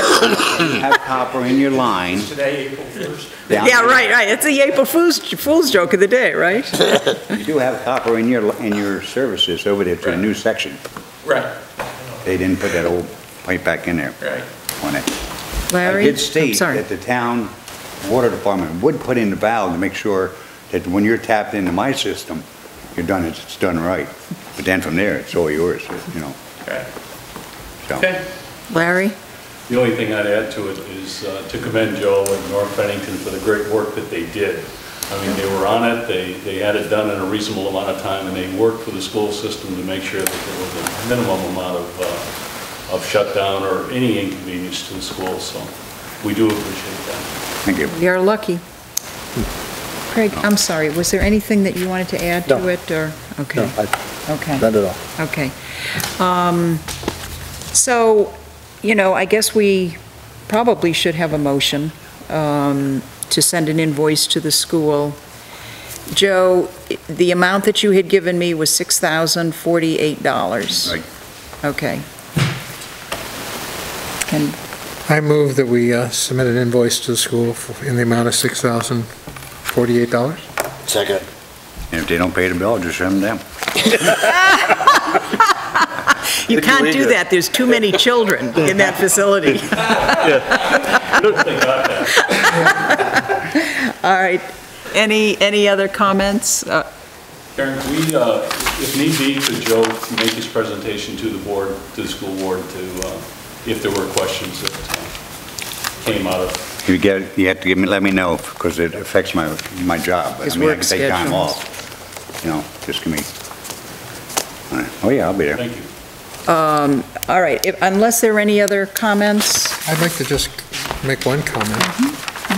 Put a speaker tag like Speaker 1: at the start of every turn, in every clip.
Speaker 1: you have copper in your line.
Speaker 2: Today, April 1st.
Speaker 1: down-
Speaker 3: Yeah, right, right. It's the April Fool's, Fool's joke of the day, right?
Speaker 1: You do have copper in your, in your services over there to a new section.
Speaker 2: Right,
Speaker 1: They didn't put that old pipe back in there
Speaker 2: right.
Speaker 1: on it. I
Speaker 3: Larry?
Speaker 1: did state
Speaker 3: sorry.
Speaker 1: that the town water department would put in the valve to make sure that when you're tapped into my system, you're done, it's done right. But then from there, it's all yours, you know,
Speaker 2: Okay.
Speaker 1: so.
Speaker 2: Okay.
Speaker 3: Larry?
Speaker 4: The only thing I'd add to it is uh, to commend Joe and North Bennington for the great work that they did. I mean, they were on it, they, they had it done in a reasonable amount of time, and they worked with the school system to make sure that there was a minimum amount of, uh, of shutdown or any inconvenience to the school, so we do appreciate that.
Speaker 1: Thank you.
Speaker 3: You're lucky. Craig, I'm sorry, was there anything that you wanted to add to
Speaker 5: No.
Speaker 3: it, or?
Speaker 5: No,
Speaker 3: Okay,
Speaker 5: I-
Speaker 3: okay.
Speaker 5: not at all.
Speaker 3: Okay. Um, So, you know, I guess we probably should have a motion um, to send an invoice to the school. Joe, i- the amount that you had given me was $6,048.
Speaker 1: Right.
Speaker 3: Okay. And
Speaker 6: I move that we uh, submit an invoice to the school for- in the amount of $6,048.
Speaker 5: Second.
Speaker 1: And if they don't pay the bill, just shut them down.
Speaker 3: you can't do that, there's too many children in that facility.
Speaker 4: They got that.
Speaker 3: All right, any, any other comments? Uh,
Speaker 4: Karen, can we, uh, if need be, could Joe make his presentation to the board, to the school board, to, uh, if there were questions that uh, came out of
Speaker 1: You get, you have to give me, let me know, because it affects my, my job.
Speaker 3: His
Speaker 1: I mean, I
Speaker 3: work
Speaker 1: can take time
Speaker 3: schedules.
Speaker 1: off, you know, just give me. All right. Oh, yeah, I'll be there.
Speaker 4: Thank you.
Speaker 3: um, All right, if- unless there are any other comments?
Speaker 6: I'd like to just make one comment,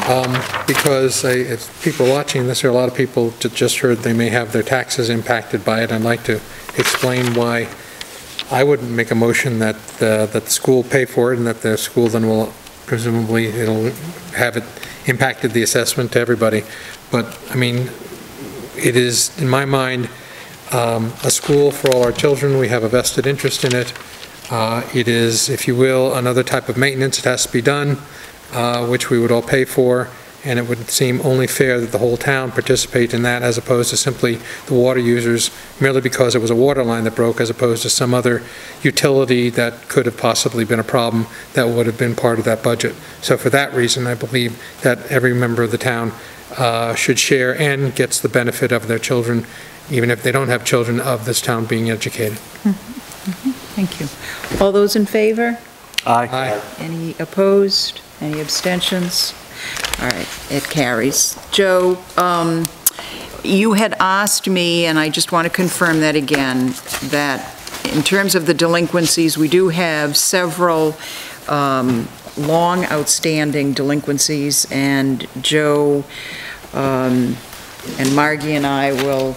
Speaker 6: Um, because I- if people watching this, there are a lot of people that just heard they may have their taxes impacted by it. I'd like to explain why I would make a motion that, uh, that the school pay for it, and that the school then will, presumably, it'll have it impacted the assessment to everybody. But, I mean, it is, in my mind, um, a school for all our children. We have a vested interest in it. Uh, It is, if you will, another type of maintenance. It has to be done, uh, which we would all pay for, and it would seem only fair that the whole town participate in that as opposed to simply the water users merely because it was a water line that broke as opposed to some other utility that could have possibly been a problem that would have been part of that budget. So for that reason, I believe that every member of the town uh, should share and gets the benefit of their children, even if they don't have children, of this town being educated.
Speaker 3: Thank you. All those in favor?
Speaker 6: Aye.
Speaker 3: Any opposed? Any abstentions? All right, it carries. Joe, um, you had asked me, and I just want to confirm that again, that in terms of the delinquencies, we do have several um, long outstanding delinquencies, and Joe um, and Margie and I will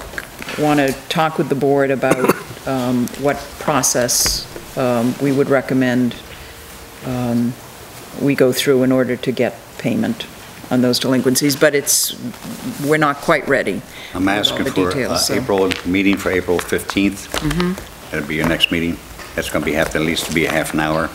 Speaker 3: want to talk with the board about um, what process um, we would recommend um, we go through in order to get payment on those delinquencies, but it's, we're not quite ready.
Speaker 1: I'm asking
Speaker 3: the
Speaker 1: for uh,
Speaker 3: details, Mm-hmm. so-
Speaker 1: April, meeting for April 15th. That'll be your next meeting. That's going to be, have to at least be a half an hour.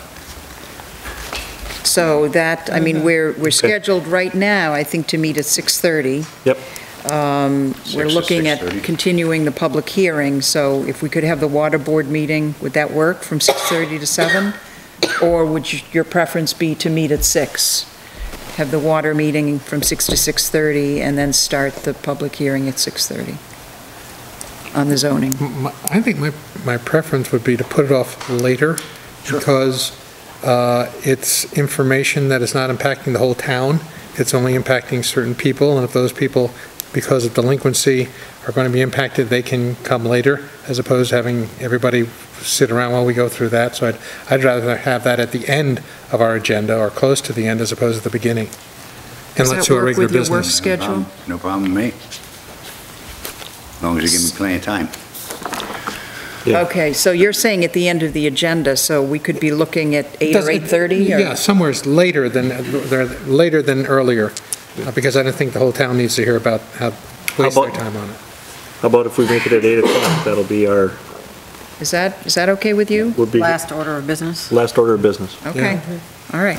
Speaker 3: So that, I
Speaker 1: Mm-hmm.
Speaker 3: mean, we're, we're scheduled right now, I think, to meet at 6:30.
Speaker 5: Yep.
Speaker 3: Um, We're
Speaker 1: Six to
Speaker 3: looking at
Speaker 1: 6:30.
Speaker 3: continuing the public hearing, so if we could have the water board meeting, would that work, from 6:30 to 7? Or would you- your preference be to meet at 6? Have the water meeting from 6 to 6:30, and then start the public hearing at 6:30 on the zoning?
Speaker 6: M- my- I think my, my preference would be to put it off later, because uh, it's information that is not impacting the whole town, it's only impacting certain people, and if those people, because of delinquency, are going to be impacted, they can come later, as opposed to having everybody sit around while we go through that, so I'd, I'd rather have that at the end of our agenda, or close to the end, as opposed to the beginning. And
Speaker 3: Does
Speaker 6: let's
Speaker 3: that
Speaker 6: do our
Speaker 3: work
Speaker 6: regular
Speaker 3: with your work
Speaker 6: business.
Speaker 1: No
Speaker 3: schedule?
Speaker 1: problem- No problem with me. As long as you give me plenty of time.
Speaker 5: Yeah.
Speaker 3: Okay, so you're saying at the end of the agenda, so we could be looking at 8 or
Speaker 6: Doesn't-
Speaker 3: 8:30? or-
Speaker 6: Yeah, somewhere's later than, they're later than earlier, uh, because I don't think the whole town needs to hear about how, waste their
Speaker 5: about-
Speaker 6: time on it.
Speaker 5: How about if we make it at 8 o'clock? That'll be our,
Speaker 3: Is that, is that okay with you?
Speaker 5: would be
Speaker 7: Last order of business?
Speaker 5: last order of business.
Speaker 3: Okay, all right.